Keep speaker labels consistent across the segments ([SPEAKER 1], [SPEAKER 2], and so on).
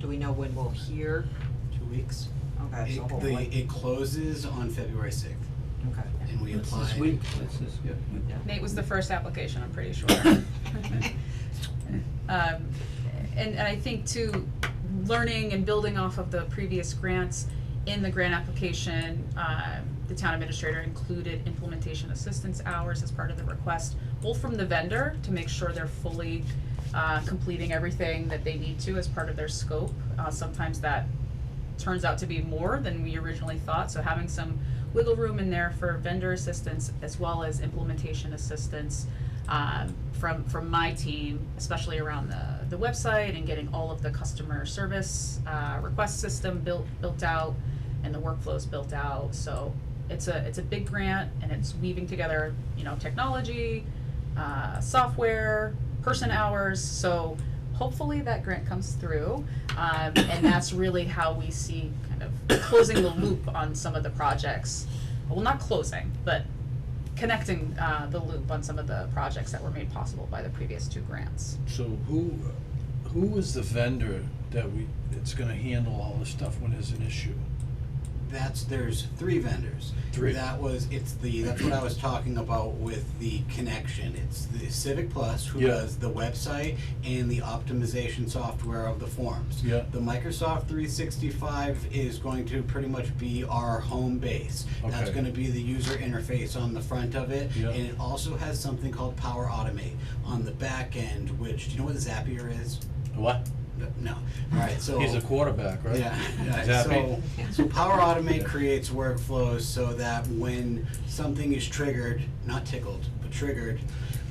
[SPEAKER 1] Do we know when we'll hear?
[SPEAKER 2] Two weeks.
[SPEAKER 1] Okay,
[SPEAKER 3] It,
[SPEAKER 1] so
[SPEAKER 3] the,
[SPEAKER 1] hopefully,
[SPEAKER 3] it closes on February sixth,
[SPEAKER 1] okay.
[SPEAKER 3] and we
[SPEAKER 4] It's
[SPEAKER 3] apply.
[SPEAKER 4] this week, it's this, yeah.
[SPEAKER 5] Nate was the first application, I'm pretty sure. Um, and, and I think too, learning and building off of the previous grants, in the grant application, um, the town administrator included implementation assistance hours as part of the request, both from the vendor to make sure they're fully, uh, completing everything that they need to as part of their scope. Uh, sometimes that turns out to be more than we originally thought, so having some wiggle room in there for vendor assistance as well as implementation assistance um, from from my team, especially around the the website and getting all of the customer service uh, request system built built out and the workflows built out. So it's a it's a big grant and it's weaving together you know technology, uh, software, person hours. So hopefully that grant comes through, um, and that's really how we see kind of closing the loop on some of the projects. Well, not closing, but connecting uh, the loop on some of the projects that were made possible by the previous two grants.
[SPEAKER 4] So who, who is the vendor that we, that's gonna handle all this stuff when there's an issue?
[SPEAKER 3] That's, there's three vendors.
[SPEAKER 4] Three.
[SPEAKER 3] That was, it's the, that's what I was talking about with the connection. It's the Civic Plus who
[SPEAKER 4] Yeah.
[SPEAKER 3] does the website and the optimization software of the forms.
[SPEAKER 4] Yeah.
[SPEAKER 3] The Microsoft three sixty-five is going to pretty much be our home base. That's
[SPEAKER 4] Okay.
[SPEAKER 3] gonna be the user interface on the front of it.
[SPEAKER 4] Yeah.
[SPEAKER 3] And it also has something called Power Automate on the back end, which, do you know what Zapier is?
[SPEAKER 4] What?
[SPEAKER 3] No, alright, so.
[SPEAKER 4] He's a quarterback, right?
[SPEAKER 3] Yeah,
[SPEAKER 4] Is
[SPEAKER 3] yeah,
[SPEAKER 4] that
[SPEAKER 3] so,
[SPEAKER 1] me?
[SPEAKER 3] so Power Automate
[SPEAKER 4] Yeah.
[SPEAKER 3] creates workflows so that when something is triggered, not tickled, but triggered,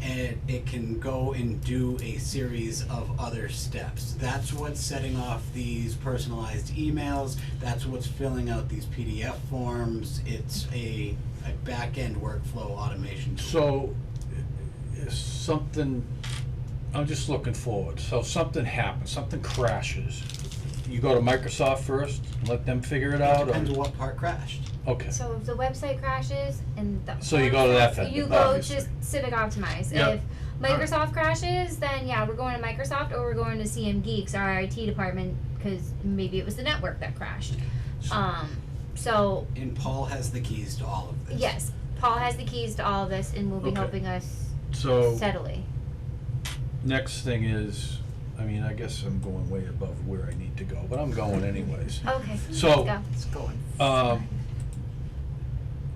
[SPEAKER 3] and it can go and do a series of other steps. That's what's setting off these personalized emails, that's what's filling out these PDF forms, it's a, a back-end workflow automation tool.
[SPEAKER 4] So, is something, I'm just looking forward, so something happens, something crashes. You go to Microsoft first, let them figure it out, or?
[SPEAKER 3] Depends what part crashed.
[SPEAKER 4] Okay,
[SPEAKER 6] So if the website crashes and the
[SPEAKER 4] So you go to that vendor,
[SPEAKER 6] You go to
[SPEAKER 4] obviously.
[SPEAKER 6] Civic Optimize.
[SPEAKER 4] Yeah.
[SPEAKER 6] If Microsoft crashes, then yeah, we're going to Microsoft or we're going to CM Geeks, our IT department, because maybe it was the network that crashed. Um, so
[SPEAKER 3] And Paul has the keys to all of this.
[SPEAKER 6] yes, Paul has the keys to all of this and will be
[SPEAKER 4] Okay.
[SPEAKER 6] helping us
[SPEAKER 4] so,
[SPEAKER 6] steadily.
[SPEAKER 4] next thing is, I mean, I guess I'm going way above where I need to go, but I'm going anyways.
[SPEAKER 6] Okay.
[SPEAKER 4] So-
[SPEAKER 6] let's go.
[SPEAKER 1] It's going.
[SPEAKER 4] Um,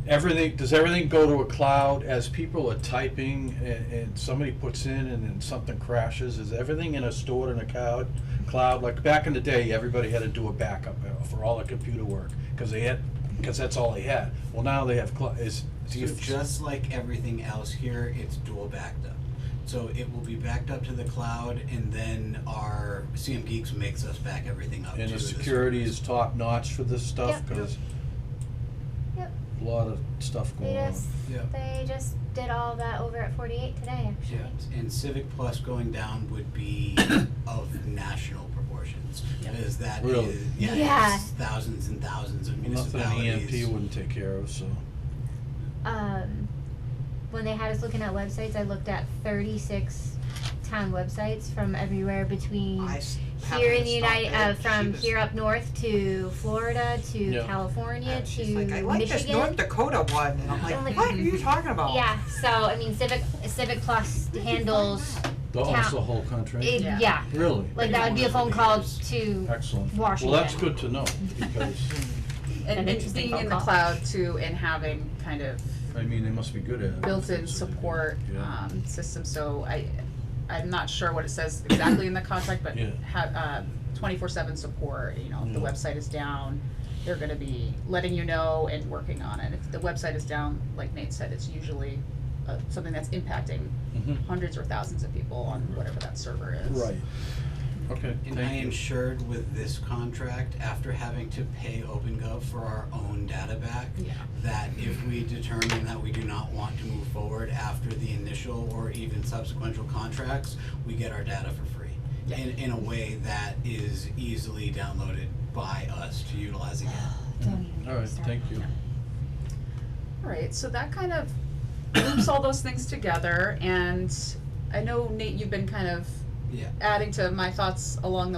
[SPEAKER 4] everything, does everything go to a cloud as people are typing and, and somebody puts in and then something crashes? Is everything in a stored in a cloud? Cloud, like back in the day, everybody had to do a backup uh, for all the computer work, cause they had, cause that's all they had. Well, now they have cloud, is, do
[SPEAKER 3] So
[SPEAKER 4] you?
[SPEAKER 3] just like everything else here, it's dual backed up. So it will be backed up to the cloud and then our CM Geeks makes us back everything up
[SPEAKER 4] And
[SPEAKER 3] to
[SPEAKER 4] the
[SPEAKER 3] this-
[SPEAKER 4] security is top notch for this stuff,
[SPEAKER 6] Yep.
[SPEAKER 4] cause
[SPEAKER 6] Yep.
[SPEAKER 4] a lot of stuff
[SPEAKER 6] They
[SPEAKER 4] going on.
[SPEAKER 6] just
[SPEAKER 3] Yeah.
[SPEAKER 6] they just did all that over at forty eight today actually.
[SPEAKER 3] Yeah, and Civic Plus going down would be of national proportions,
[SPEAKER 5] Yeah.
[SPEAKER 3] because that
[SPEAKER 4] Really?
[SPEAKER 3] is, yeah,
[SPEAKER 6] Yeah.
[SPEAKER 3] it's thousands and thousands of
[SPEAKER 4] Well, Nothing E an
[SPEAKER 3] municipalities.
[SPEAKER 4] EMP wouldn't take care of, so.
[SPEAKER 6] um, when they had us looking at websites, I looked at 36 town websites from everywhere between
[SPEAKER 1] I s-
[SPEAKER 6] Mm. here
[SPEAKER 1] happened
[SPEAKER 6] in
[SPEAKER 1] to
[SPEAKER 6] the
[SPEAKER 1] stop
[SPEAKER 6] United,
[SPEAKER 1] there,
[SPEAKER 6] uh,
[SPEAKER 1] she
[SPEAKER 6] from
[SPEAKER 1] was-
[SPEAKER 6] here up north to Florida to
[SPEAKER 4] Yeah.
[SPEAKER 6] California
[SPEAKER 1] uh,
[SPEAKER 6] to
[SPEAKER 1] She's like, I like this
[SPEAKER 6] Michigan.
[SPEAKER 1] North Dakota one, and I'm
[SPEAKER 6] I'm
[SPEAKER 1] like,
[SPEAKER 6] like,
[SPEAKER 1] what are you talking about?
[SPEAKER 6] yeah, so I mean, Civic Civic Plus handles
[SPEAKER 4] Oh,
[SPEAKER 6] Town-
[SPEAKER 4] it's the whole country?
[SPEAKER 6] it, yeah.
[SPEAKER 5] Yeah.
[SPEAKER 4] Really?
[SPEAKER 6] like that would be a phone call to
[SPEAKER 4] Excellent.
[SPEAKER 6] Washington.
[SPEAKER 4] Well, that's good to know, because,
[SPEAKER 6] An
[SPEAKER 5] And, and
[SPEAKER 6] interesting
[SPEAKER 5] being
[SPEAKER 6] phone
[SPEAKER 5] in the
[SPEAKER 6] call.
[SPEAKER 5] cloud too and having kind of
[SPEAKER 4] I mean, they must be good at it.
[SPEAKER 5] built-in support
[SPEAKER 4] Yeah.
[SPEAKER 5] um, system, so I, I'm not sure what it says exactly in the contract, but
[SPEAKER 4] Yeah.
[SPEAKER 5] have, uh, twenty-four seven support, you know, if the
[SPEAKER 4] Yeah.
[SPEAKER 5] website is down, they're gonna be letting you know and working on it. If the website is down, like Nate said, it's usually, uh, something that's impacting
[SPEAKER 4] Mhm.
[SPEAKER 5] hundreds or thousands of people on whatever that server is.
[SPEAKER 4] Right. Okay,
[SPEAKER 3] And I
[SPEAKER 4] thank you.
[SPEAKER 3] insured with this contract after having to pay OpenGov for our own data back.
[SPEAKER 5] Yeah.
[SPEAKER 3] That if we determine that we do not want to move forward after the initial or even subsequent contracts, we get our data for free.
[SPEAKER 5] Yeah.
[SPEAKER 3] In, in a way that is easily downloaded by us to utilize again.
[SPEAKER 6] Don't even get
[SPEAKER 4] All right,
[SPEAKER 6] me started
[SPEAKER 4] thank
[SPEAKER 6] on
[SPEAKER 4] you.
[SPEAKER 6] that.
[SPEAKER 5] Alright, so that kind of loops all those things together, and I know Nate, you've been kind of
[SPEAKER 3] Yeah.
[SPEAKER 5] adding to my thoughts along the